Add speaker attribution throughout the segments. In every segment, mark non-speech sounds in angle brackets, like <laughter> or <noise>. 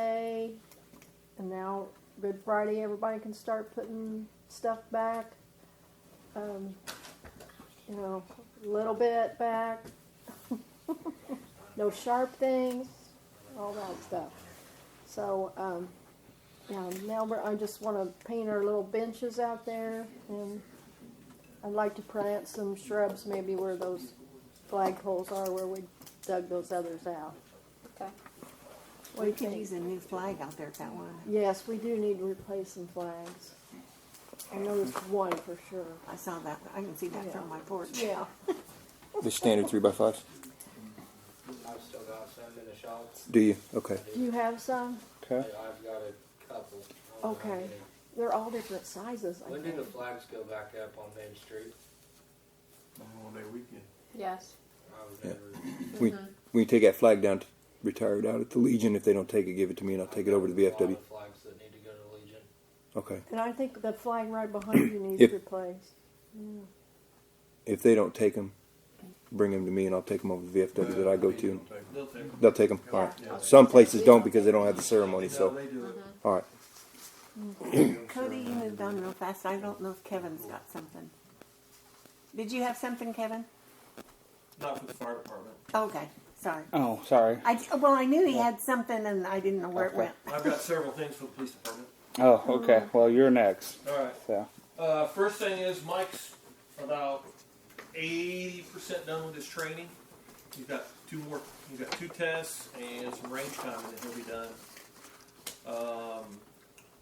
Speaker 1: day, and now Good Friday, everybody can start putting stuff back. Um, you know, a little bit back. <laughs> no sharp things, all that stuff. So, um, yeah, now we're, I just want to paint our little benches out there, and I'd like to plant some shrubs maybe where those flagpoles are, where we dug those others out.
Speaker 2: Okay.
Speaker 1: What do
Speaker 3: We
Speaker 1: you
Speaker 3: could
Speaker 1: think?
Speaker 3: use a new flag out there, can't we?
Speaker 1: Yes, we do need to replace some flags. I noticed one for sure.
Speaker 3: I saw that, I can see that from my porch.
Speaker 1: Yeah.
Speaker 4: The standard three by five.
Speaker 5: I've still got some in the shop.
Speaker 4: Do you? Okay.
Speaker 1: Do you have some?
Speaker 5: I-
Speaker 4: Okay.
Speaker 5: I've got a couple. I don't know how
Speaker 1: Okay.
Speaker 5: many.
Speaker 1: They're all different sizes, I
Speaker 5: When do
Speaker 1: think.
Speaker 5: the flags go back up on Main Street?
Speaker 6: Memorial Day weekend.
Speaker 2: Yes.
Speaker 5: I was
Speaker 4: Yeah.
Speaker 5: never,
Speaker 4: We we take that flag down, to, retire it out at the Legion. If they don't take it, give it to me, and I'll take it over to the
Speaker 5: There's a lot
Speaker 4: VFW.
Speaker 5: of Flags that need to go to Legion.
Speaker 4: Okay.
Speaker 1: And I think the flag right behind you needs
Speaker 4: If-
Speaker 1: replaced.
Speaker 4: If they don't take them, bring them to me, and I'll take them over to the VFW that I go to.
Speaker 6: Don't take-
Speaker 7: They'll take 'em.
Speaker 4: They'll take them. All right.
Speaker 6: Yeah.
Speaker 4: Some places don't because they don't have the ceremony.
Speaker 7: No,
Speaker 4: So
Speaker 7: they do it.
Speaker 4: all right.
Speaker 3: Cody, you moved on real fast, I don't know if Kevin's got something. Did you have something, Kevin?
Speaker 7: Not for the fire department.
Speaker 3: Okay, sorry.
Speaker 8: Oh, sorry.
Speaker 3: I, well, I knew he had something and I didn't know where it
Speaker 8: Okay.
Speaker 3: went.
Speaker 7: I've got several things for the police department.
Speaker 8: Oh, okay. Well, you're next.
Speaker 7: All right.
Speaker 8: So,
Speaker 7: Uh, first thing is Mike's about eighty percent done with his training. He's got two more. He's got two tests and some range time, and then he'll be done. Um,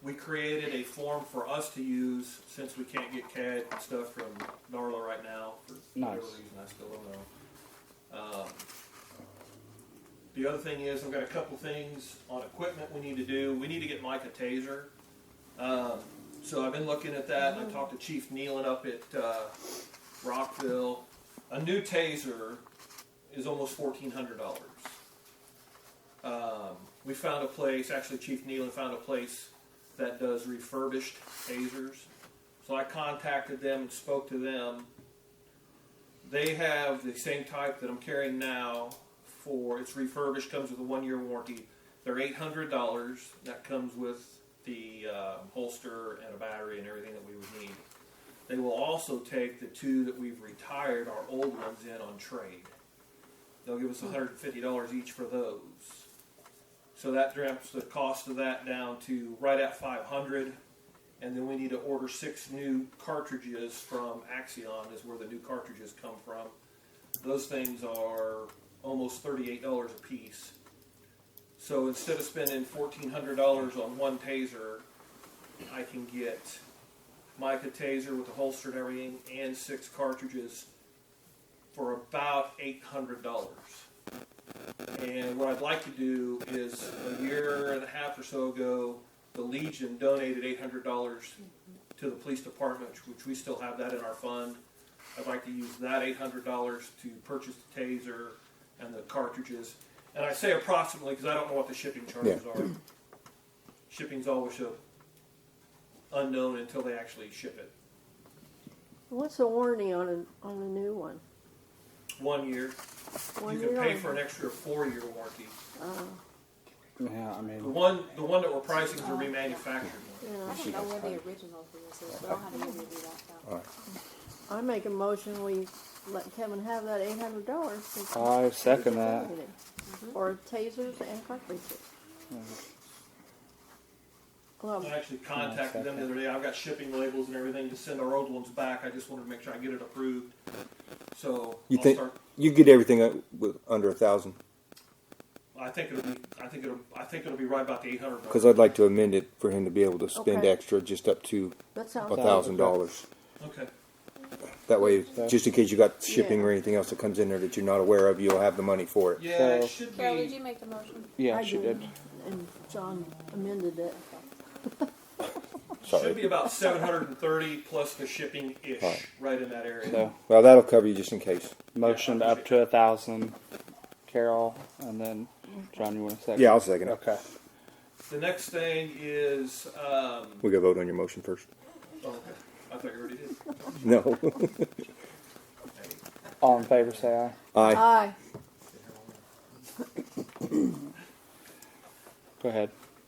Speaker 7: we created a form for us to use since we can't get CAD and stuff from Darla right now for whatever
Speaker 8: Nice.
Speaker 7: reason. I still don't know. Um, the other thing is, I've got a couple things on equipment we need to do. We need to get Mike a taser. Um, so I've been looking at that. and I talked to Chief Nealon up at uh, Rockville. A new taser is almost fourteen hundred dollars. Um, we found a place. Actually, Chief Nealon found a place that does refurbished tasers. So I contacted them and spoke to them. They have the same type that I'm carrying now. For it's refurbished, comes with a one-year warranty. They're eight hundred dollars. That comes with the um, holster and a battery and everything that we would need. They will also take the two that we've retired, our old ones, in on trade. They'll give us one hundred and fifty dollars each for those. So that drops the cost of that down to right at five hundred. And then we need to order six new cartridges from Axion. Is where the new cartridges come from. Those things are almost thirty-eight dollars a piece. So instead of spending fourteen hundred dollars on one taser, I can get Mike a taser with the holster and everything, and six cartridges for about eight hundred dollars. And what I'd like to do is a year and a half or so ago, the Legion donated eight hundred dollars to the police department, which we still have that in our fund. I'd like to use that eight hundred dollars to purchase the taser and the cartridges. And I say approximately because I don't know what the shipping charges are. Shipping's always a unknown until they actually ship it.
Speaker 1: What's the warranty on a, on a new one?
Speaker 7: One year,
Speaker 1: One
Speaker 7: you can
Speaker 1: year
Speaker 7: pay
Speaker 1: on-
Speaker 7: for an extra four-year warranty.
Speaker 8: yeah, I
Speaker 7: The
Speaker 8: mean,
Speaker 7: one, the one that we're pricing is a remanufactured one.
Speaker 1: Yeah.
Speaker 2: I don't know where the original is. We don't have anybody do that though.
Speaker 1: I make a motion we let Kevin have that eight hundred dollars. Mm-hmm.
Speaker 8: I second that.
Speaker 1: Or tasers and cartridges. Well,
Speaker 7: I actually contacted them the other day. I've got shipping labels and everything to send our old ones back. I just wanted to make sure I get it approved. So
Speaker 4: You
Speaker 7: I'll
Speaker 4: think
Speaker 7: start.
Speaker 4: you get everything uh, with under a thousand?
Speaker 7: I think it'll be. I think it'll. I think it'll be right about the eight hundred.
Speaker 4: Because I'd like to amend it for him to be able to spend
Speaker 1: Okay.
Speaker 4: extra, just up to
Speaker 1: that
Speaker 4: a
Speaker 1: sounds.
Speaker 4: thousand dollars.
Speaker 7: Okay.
Speaker 4: That way,
Speaker 8: Okay.
Speaker 4: just in case you got shipping
Speaker 1: Yeah.
Speaker 4: or anything else that comes in there that you're not aware of, you'll have the money for it.
Speaker 7: Yeah,
Speaker 8: So-
Speaker 7: it should
Speaker 2: Carol, did
Speaker 7: be.
Speaker 2: you make the motion?
Speaker 8: yeah,
Speaker 1: I
Speaker 8: she
Speaker 1: did.
Speaker 8: did.
Speaker 1: And John amended it.
Speaker 4: Sorry.
Speaker 7: Should be about seven hundred and thirty plus the shipping ish,
Speaker 4: Right.
Speaker 7: right in that area.
Speaker 8: So,
Speaker 4: Well, that'll cover you just in case.
Speaker 8: motion
Speaker 7: Yeah, I
Speaker 8: up to a thousand, Carol, and then John. You want to second?
Speaker 4: Yeah, I'll second it.
Speaker 8: Okay.
Speaker 7: The next thing is. Um,
Speaker 4: We got to vote on your motion first.
Speaker 7: oh, okay. I thought you already did.
Speaker 4: No. <laughs>
Speaker 8: All in favor, say aye.
Speaker 4: Aye.
Speaker 1: Aye.
Speaker 8: Go ahead.